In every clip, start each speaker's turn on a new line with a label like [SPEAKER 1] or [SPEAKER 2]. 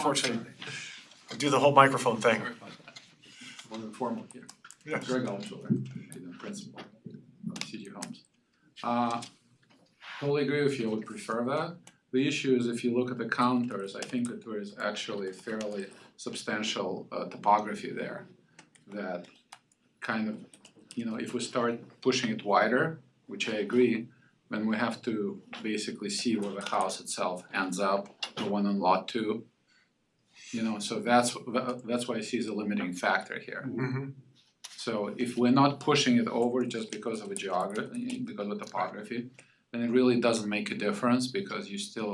[SPEAKER 1] unfortunately, do the whole microphone thing.
[SPEAKER 2] More than formal here.
[SPEAKER 1] Yes.
[SPEAKER 2] Greg Altshuler, the principal of CG Homes. Uh, totally agree with you, I would prefer that. The issue is if you look at the counters, I think that there is actually fairly substantial uh topography there that kind of, you know, if we start pushing it wider, which I agree, then we have to basically see where the house itself ends up, the one on lot two. You know, so that's tha- that's why I see as a limiting factor here.
[SPEAKER 1] Mhm.
[SPEAKER 2] So if we're not pushing it over just because of a geography, because of topography, then it really doesn't make a difference because you still,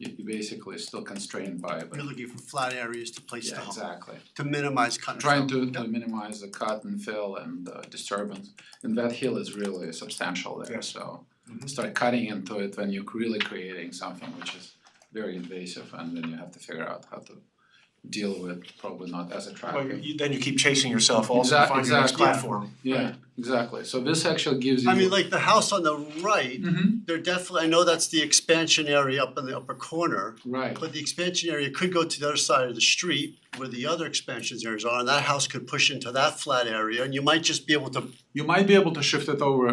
[SPEAKER 2] you you basically still constrained by it.
[SPEAKER 3] You're looking for flat areas to place the
[SPEAKER 2] Yeah,
[SPEAKER 3] home,
[SPEAKER 2] exactly.
[SPEAKER 3] to minimize cut and
[SPEAKER 2] Trying
[SPEAKER 3] fill.
[SPEAKER 2] to to minimize the cut and fill and uh, disturbance, and that hill is really substantial there,
[SPEAKER 1] Yes.
[SPEAKER 2] so.
[SPEAKER 1] Mhm.
[SPEAKER 2] Start cutting into it, then you're really creating something which is very invasive, and then you have to figure out how to deal with probably not as attractive.
[SPEAKER 1] Well, you, then you keep chasing yourself also to
[SPEAKER 2] Exact-
[SPEAKER 1] find your next
[SPEAKER 2] exactly.
[SPEAKER 1] platform.
[SPEAKER 2] Yeah, exactly, so this actually gives you.
[SPEAKER 3] I mean, like the house on the right,
[SPEAKER 2] Mhm,
[SPEAKER 3] they're definitely, I know that's the expansion area up in the upper corner,
[SPEAKER 2] right.
[SPEAKER 3] but the expansion area could go to the other side of the street where the other expansion areas are, and that house could push into that flat area, and you might just be able to,
[SPEAKER 2] You might be able to shift it over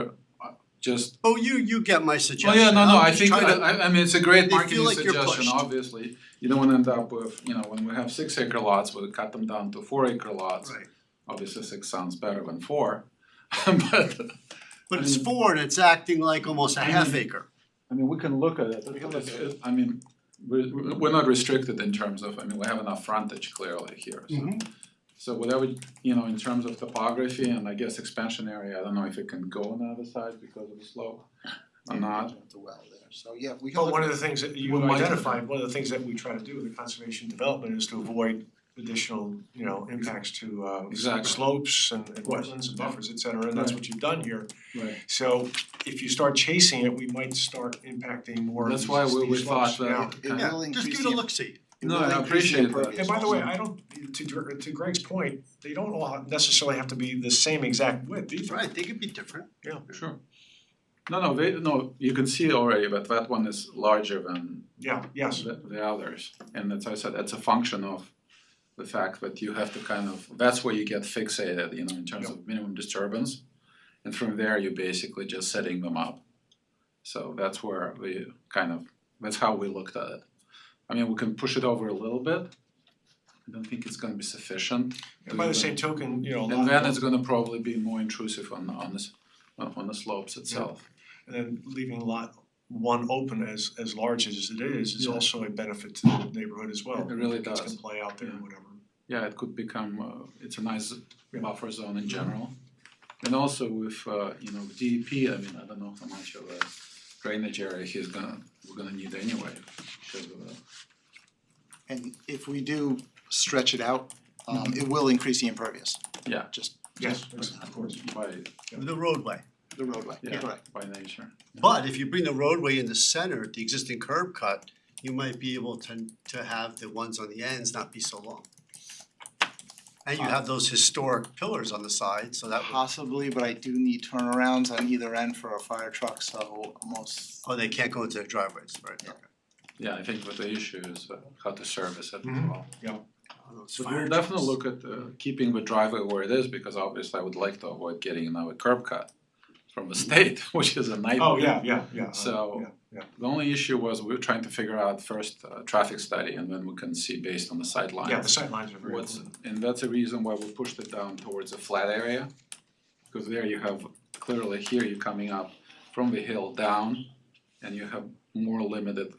[SPEAKER 2] uh, just.
[SPEAKER 3] oh, you, you get my
[SPEAKER 2] Oh
[SPEAKER 3] suggestion.
[SPEAKER 2] yeah, no, no,
[SPEAKER 3] I'm
[SPEAKER 2] I
[SPEAKER 3] just
[SPEAKER 2] think,
[SPEAKER 3] trying to-
[SPEAKER 2] that- I I mean, it's a great
[SPEAKER 3] They feel
[SPEAKER 2] marketing
[SPEAKER 3] like you're
[SPEAKER 2] suggestion,
[SPEAKER 3] pushed.
[SPEAKER 2] obviously. You don't wanna end up with, you know, when we have six acre lots, we cut them down to four acre lots.
[SPEAKER 3] Right,
[SPEAKER 2] Obviously, six sounds better than four. But,
[SPEAKER 3] but it's four and it's acting like almost a half acre.
[SPEAKER 2] I mean, we can look at it,
[SPEAKER 1] We can look at it.
[SPEAKER 2] I mean, we're we're not restricted in terms of, I mean, we have enough frontage clearly here, so.
[SPEAKER 1] Mm-hmm.
[SPEAKER 2] So whatever, you know, in terms of topography and I guess expansion area, I don't know if it can go on the other side because of the slope or not.
[SPEAKER 4] The well there, so yeah, we can
[SPEAKER 2] Oh,
[SPEAKER 1] But
[SPEAKER 4] look
[SPEAKER 1] one
[SPEAKER 4] at
[SPEAKER 1] of the things that you
[SPEAKER 2] Well, my-
[SPEAKER 1] identified, one of the things that we try to do with the conservation development is to avoid additional, you know, impacts to uh
[SPEAKER 2] Exactly.
[SPEAKER 1] slopes and and wetlands and buffers, et cetera, and that's what you've done here.
[SPEAKER 2] Right.
[SPEAKER 1] So if you start chasing it, we might start impacting more of
[SPEAKER 2] That's
[SPEAKER 1] these
[SPEAKER 2] why we
[SPEAKER 1] these
[SPEAKER 2] we thought
[SPEAKER 1] slopes.
[SPEAKER 2] that.
[SPEAKER 4] It
[SPEAKER 2] kind of-
[SPEAKER 4] will
[SPEAKER 3] Just
[SPEAKER 4] increase
[SPEAKER 3] give it a
[SPEAKER 4] the-
[SPEAKER 3] look see.
[SPEAKER 4] it
[SPEAKER 2] No,
[SPEAKER 4] will
[SPEAKER 2] I
[SPEAKER 4] increase the
[SPEAKER 2] appreciate that.
[SPEAKER 4] impervious
[SPEAKER 1] And by the way,
[SPEAKER 4] also.
[SPEAKER 1] I don't, to Gre- to Greg's point, they don't all necessarily have to be the same exact width either.
[SPEAKER 3] Right, they could be different.
[SPEAKER 2] Sure. No, no, they, no, you can see already, but that one is larger than
[SPEAKER 1] Yeah, yes,
[SPEAKER 2] the the others. And as I said, that's a function of the fact that you have to kind of, that's where you get fixated, you know, in terms of minimum disturbance. And from there, you're basically just setting them up. So that's where we kind of, that's how we looked at it. I mean, we can push it over a little bit. I don't think it's gonna be sufficient.
[SPEAKER 1] and by the same token, you know, a lot
[SPEAKER 2] And
[SPEAKER 1] of
[SPEAKER 2] then
[SPEAKER 1] them-
[SPEAKER 2] it's gonna probably be more intrusive on on this, on the slopes itself.
[SPEAKER 1] and then leaving lot one open as as large as it is is
[SPEAKER 2] Yeah.
[SPEAKER 1] also a benefit to the neighborhood as well.
[SPEAKER 2] It really
[SPEAKER 1] Kids
[SPEAKER 2] does.
[SPEAKER 1] can play out there and
[SPEAKER 2] Yeah.
[SPEAKER 1] whatever.
[SPEAKER 2] Yeah, it could become, uh, it's a nice
[SPEAKER 1] Yeah.
[SPEAKER 2] buffer zone in general. And also with, uh, you know, DEP, I mean, I don't know how much of a drainage area he's gonna, we're gonna need anyway, because of uh, the
[SPEAKER 4] And if we do stretch it out, um it will increase the impervious.
[SPEAKER 2] Mm-hmm. Yeah.
[SPEAKER 4] Just
[SPEAKER 1] Yes, of course.
[SPEAKER 2] by,
[SPEAKER 3] The roadway.
[SPEAKER 4] the roadway,
[SPEAKER 2] Yeah.
[SPEAKER 4] correct.
[SPEAKER 2] by nature.
[SPEAKER 3] But if you bring the roadway in the center, the existing curb cut, you might be able to to have the ones on the ends not be so long. And you have those historic pillars on the side, so that would,
[SPEAKER 4] Possibly, but I do need turnarounds on either end for a fire truck, so most,
[SPEAKER 3] oh, they can't go into the driveways, right?
[SPEAKER 4] Yeah.
[SPEAKER 2] Yeah, I think what the issue is uh, how to service it as
[SPEAKER 1] Mhm.
[SPEAKER 2] well.
[SPEAKER 3] Those
[SPEAKER 2] But
[SPEAKER 3] fire
[SPEAKER 2] we'll definitely
[SPEAKER 3] trucks.
[SPEAKER 2] look at uh, keeping the driveway where it is, because obviously I would like to avoid getting another curb cut from the state, which is a nightmare.
[SPEAKER 1] Oh, yeah, yeah, yeah. uh,
[SPEAKER 2] So-
[SPEAKER 1] yeah, yeah.
[SPEAKER 2] The only issue was we were trying to figure out first uh traffic study and then we can see based on the sidelines.
[SPEAKER 1] Yeah, the sidelines are very
[SPEAKER 2] What's,
[SPEAKER 1] important.
[SPEAKER 2] and that's the reason why we pushed it down towards a flat area. Because there you have, clearly here you're coming up from the hill down and you have more limited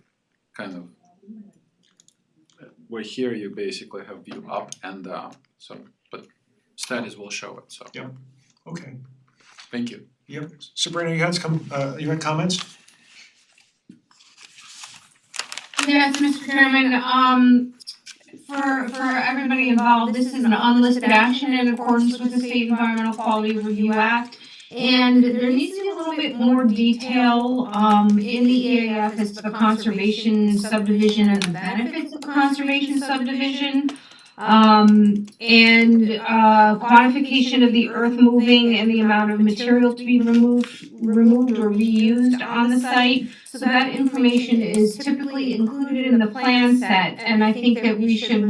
[SPEAKER 2] kind of. Where here you basically have view up and down, so, but studies will show it, so,
[SPEAKER 1] Yeah. Okay.
[SPEAKER 2] thank you.
[SPEAKER 1] Yep. Sabrina, you had some, uh, you had comments?
[SPEAKER 5] Yes, Mr. Chairman, um, for, for everybody involved, this is an unlisted action in accordance with the State Environmental Quality Review Act. And there needs to be a little bit more detail, um, in the EAF as to the conservation subdivision and the benefits of conservation subdivision. Um, and, uh, quantification of the earth moving and the amount of material to be removed, removed or reused on the site. So that information is typically included in the plan set, and I think that we should